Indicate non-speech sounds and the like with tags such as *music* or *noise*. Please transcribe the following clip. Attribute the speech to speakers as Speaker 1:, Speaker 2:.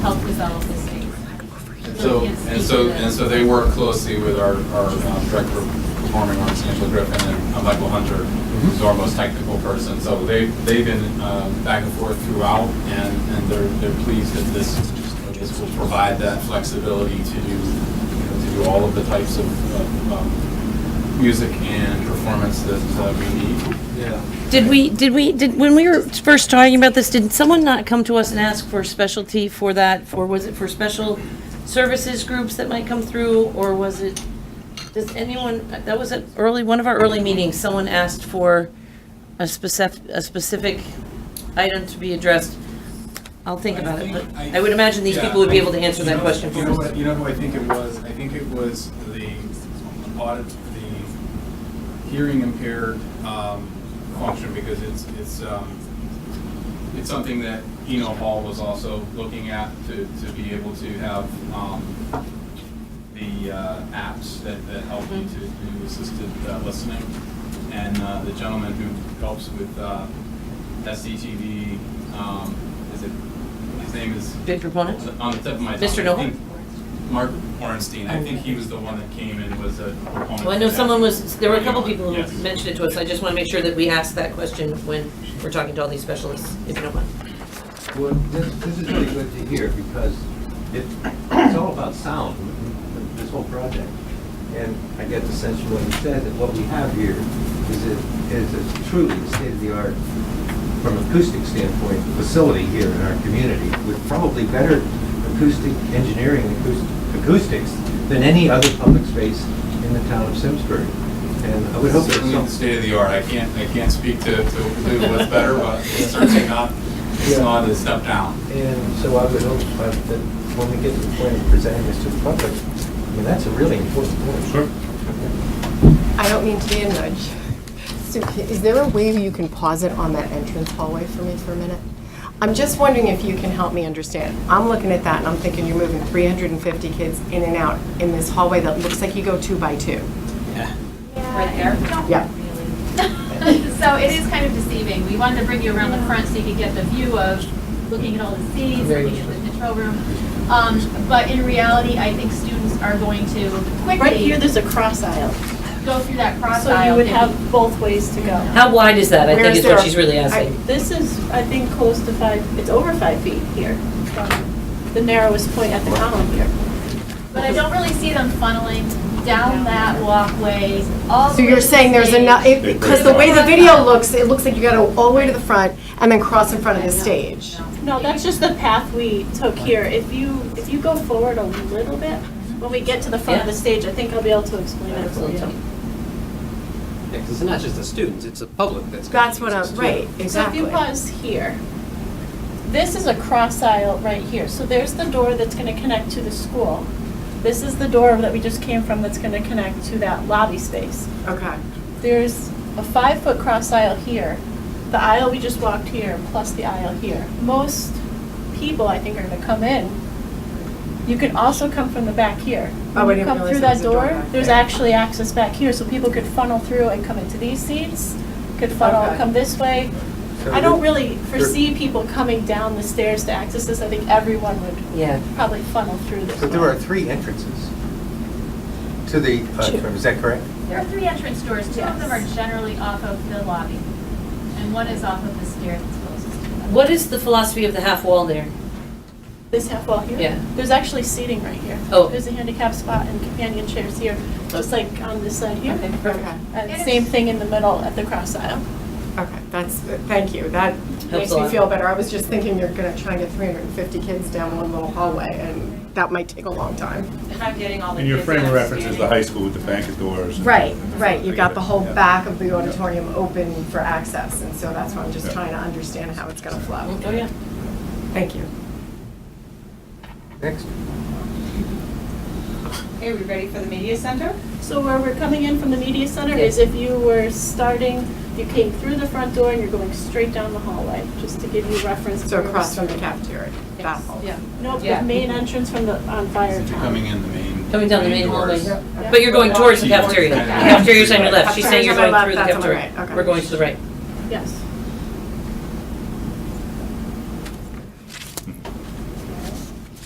Speaker 1: help resolve this case.
Speaker 2: And so, and so, and so they work closely with our, our um, director of performing arts, Angela Griffin, and uh, Michael Hunter, who's our most technical person. So they, they've been um, back and forth throughout, and, and they're, they're pleased that this, this will provide that flexibility to do, you know, to do all of the types of, of, um, music and performance that uh, we need.
Speaker 3: Yeah.
Speaker 4: Did we, did we, did, when we were first talking about this, did someone not come to us and ask for specialty for that? For, was it for special services groups that might come through, or was it, does anyone, that was at early, one of our early meetings, someone asked for a specific, a specific item to be addressed. I'll think about it, but I would imagine these people would be able to answer that question
Speaker 2: You
Speaker 4: for
Speaker 2: know what-
Speaker 4: us.
Speaker 2: You know who I think it was? I think it was the audit, the hearing impaired um, function, because it's, it's, um, it's something that Eno Hall was also looking at to, to be able to have um, the uh, apps that, that help you to do assisted uh, listening. And uh, the gentleman who helps with uh, SDTV, um, is it, his name is?
Speaker 4: Big proponent?
Speaker 2: on the tip of my tongue.
Speaker 4: Mr.
Speaker 2: I
Speaker 4: Noel?
Speaker 2: think Mark Orenstein, I think he was the one that came and was a proponent.
Speaker 4: Well, I know
Speaker 2: for that.
Speaker 4: someone was, there were a couple people
Speaker 2: Yes.
Speaker 4: who mentioned it to us, I just want to make sure that we ask that question when we're talking to all these specialists, if you don't mind.
Speaker 3: Well, this, this is really good to hear because it, it's all about sound, this whole project. And I get the sense from what you said that what we have here is a, is a truly state-of-the-art, from acoustic standpoint, facility here in our community with probably better acoustic engineering, acoust- acoustics than any other public space in the town of Simsbury. And I would hope that
Speaker 2: Certainly the
Speaker 3: some,
Speaker 2: state of the art, I can't, I can't speak to, to to what's better, but
Speaker 3: *laughs*
Speaker 2: it's certainly not, it's
Speaker 3: Yeah.
Speaker 2: not a step down.
Speaker 3: And so I would hope uh, that when we get to the point of presenting this to the public, I mean, that's a really important point. Sure.
Speaker 5: I don't mean to be a nudge. So ca- is there a way you can pause it on that entrance hallway for me for a minute? I'm just wondering if you can help me understand. I'm looking at that and I'm thinking you're moving 350 kids in and out in this hallway that looks like you go two by two.
Speaker 1: Right there?
Speaker 5: Yeah.
Speaker 1: *laughs* So it is kind of deceiving. We wanted to bring you around the front so you could get the view of looking at all the seats, looking at the control room. Um, But in reality, I think students are going to
Speaker 6: Right here,
Speaker 1: quickly
Speaker 6: there's a cross aisle,
Speaker 1: go through that cross
Speaker 6: so you
Speaker 1: aisle.
Speaker 6: would
Speaker 1: and-
Speaker 6: have both ways to go.
Speaker 4: How wide is that, I
Speaker 5: Where
Speaker 4: think
Speaker 5: is
Speaker 4: is what
Speaker 5: there-
Speaker 4: she's really asking.
Speaker 6: This is, I think, close to five, it's over five feet here, from the narrowest point at the column here.
Speaker 1: But I don't really see them funneling down that walkway all the
Speaker 5: So
Speaker 1: way
Speaker 5: you're
Speaker 1: to the
Speaker 5: saying there's
Speaker 1: stage.
Speaker 5: enough, because the way the video looks, it looks like you gotta all the way to the front and then cross in front of the stage.
Speaker 6: No, that's just the path we took here. If you, if you go forward a little bit, when we get to the front of the
Speaker 4: Yeah.
Speaker 6: stage, I think I'll be able to explain it for you.
Speaker 7: Yeah, 'cause it's not just the students, it's the public that's. gonna
Speaker 5: That's what
Speaker 7: use
Speaker 5: I'm,
Speaker 7: this too.
Speaker 5: right,
Speaker 6: So if
Speaker 5: exactly.
Speaker 6: you pause here, this is a cross aisle right here. So there's the door that's gonna connect to the school. This is the door that we just came from that's gonna connect to that lobby space.
Speaker 5: Okay.
Speaker 6: There's a five-foot cross aisle here, the aisle we just walked here, plus the aisle here. Most people, I think, are gonna come in. You can also come from the back here.
Speaker 5: Oh, I
Speaker 6: When you
Speaker 5: didn't
Speaker 6: come
Speaker 5: realize
Speaker 6: through
Speaker 5: there
Speaker 6: that
Speaker 5: was a door back
Speaker 6: There's
Speaker 5: there.
Speaker 6: actually access back here, so people could funnel through and come into these seats, could funnel,
Speaker 5: Okay.
Speaker 6: come this way. I don't really foresee people coming down the stairs to access this. I think everyone would
Speaker 4: Yeah.
Speaker 6: probably funnel through this.
Speaker 3: So there
Speaker 6: way.
Speaker 3: are three entrances to the auditorium, is that correct?
Speaker 1: There are three entrance doors. Two of them are
Speaker 6: Yes.
Speaker 1: generally off of the lobby, and one is off of the stair that's closest to them.
Speaker 4: What is the philosophy of the half wall there?
Speaker 6: This half wall here?
Speaker 4: Yeah.
Speaker 6: There's actually seating right here.
Speaker 4: Oh.
Speaker 6: There's a handicap spot and companion chairs here, just like on this side here.
Speaker 5: Okay.
Speaker 6: And same thing in the middle at the cross aisle.
Speaker 5: Okay, that's, thank you, that makes
Speaker 4: a
Speaker 5: me
Speaker 4: lot.
Speaker 5: feel better. I was just thinking you're gonna try and get 350 kids down one little hallway, and that might take a long time.
Speaker 8: And your frame of reference is the high school with the bank doors. and-
Speaker 5: Right, right, you've got the whole
Speaker 8: Yeah.
Speaker 5: back of the auditorium open for access, and so that's why I'm just trying to understand how it's gonna flow.
Speaker 4: Oh, yeah.
Speaker 5: Thank you.
Speaker 3: Next.
Speaker 9: Are we ready for the media center?
Speaker 6: So where we're coming in from the media center is if you were starting, you came through the front door and you're going straight down the hallway, just to give you reference. to
Speaker 5: So
Speaker 6: where we're
Speaker 5: across from the
Speaker 6: starting.
Speaker 5: cafeteria, that hall.
Speaker 6: Yeah. Nope,
Speaker 9: Yeah.
Speaker 6: the main entrance from the, on fire
Speaker 2: Since you're
Speaker 6: tower.
Speaker 2: coming in the main.
Speaker 4: Coming down the main hallway.
Speaker 2: doors.
Speaker 4: But you're going towards the cafeteria. The Cafeteria's on your left, she's saying you're going
Speaker 5: Cafeteria's on my
Speaker 4: through the
Speaker 5: left, that's on my
Speaker 4: cafeteria.
Speaker 5: right, okay.
Speaker 4: We're going to the right.
Speaker 6: Yes.
Speaker 2: Hmm.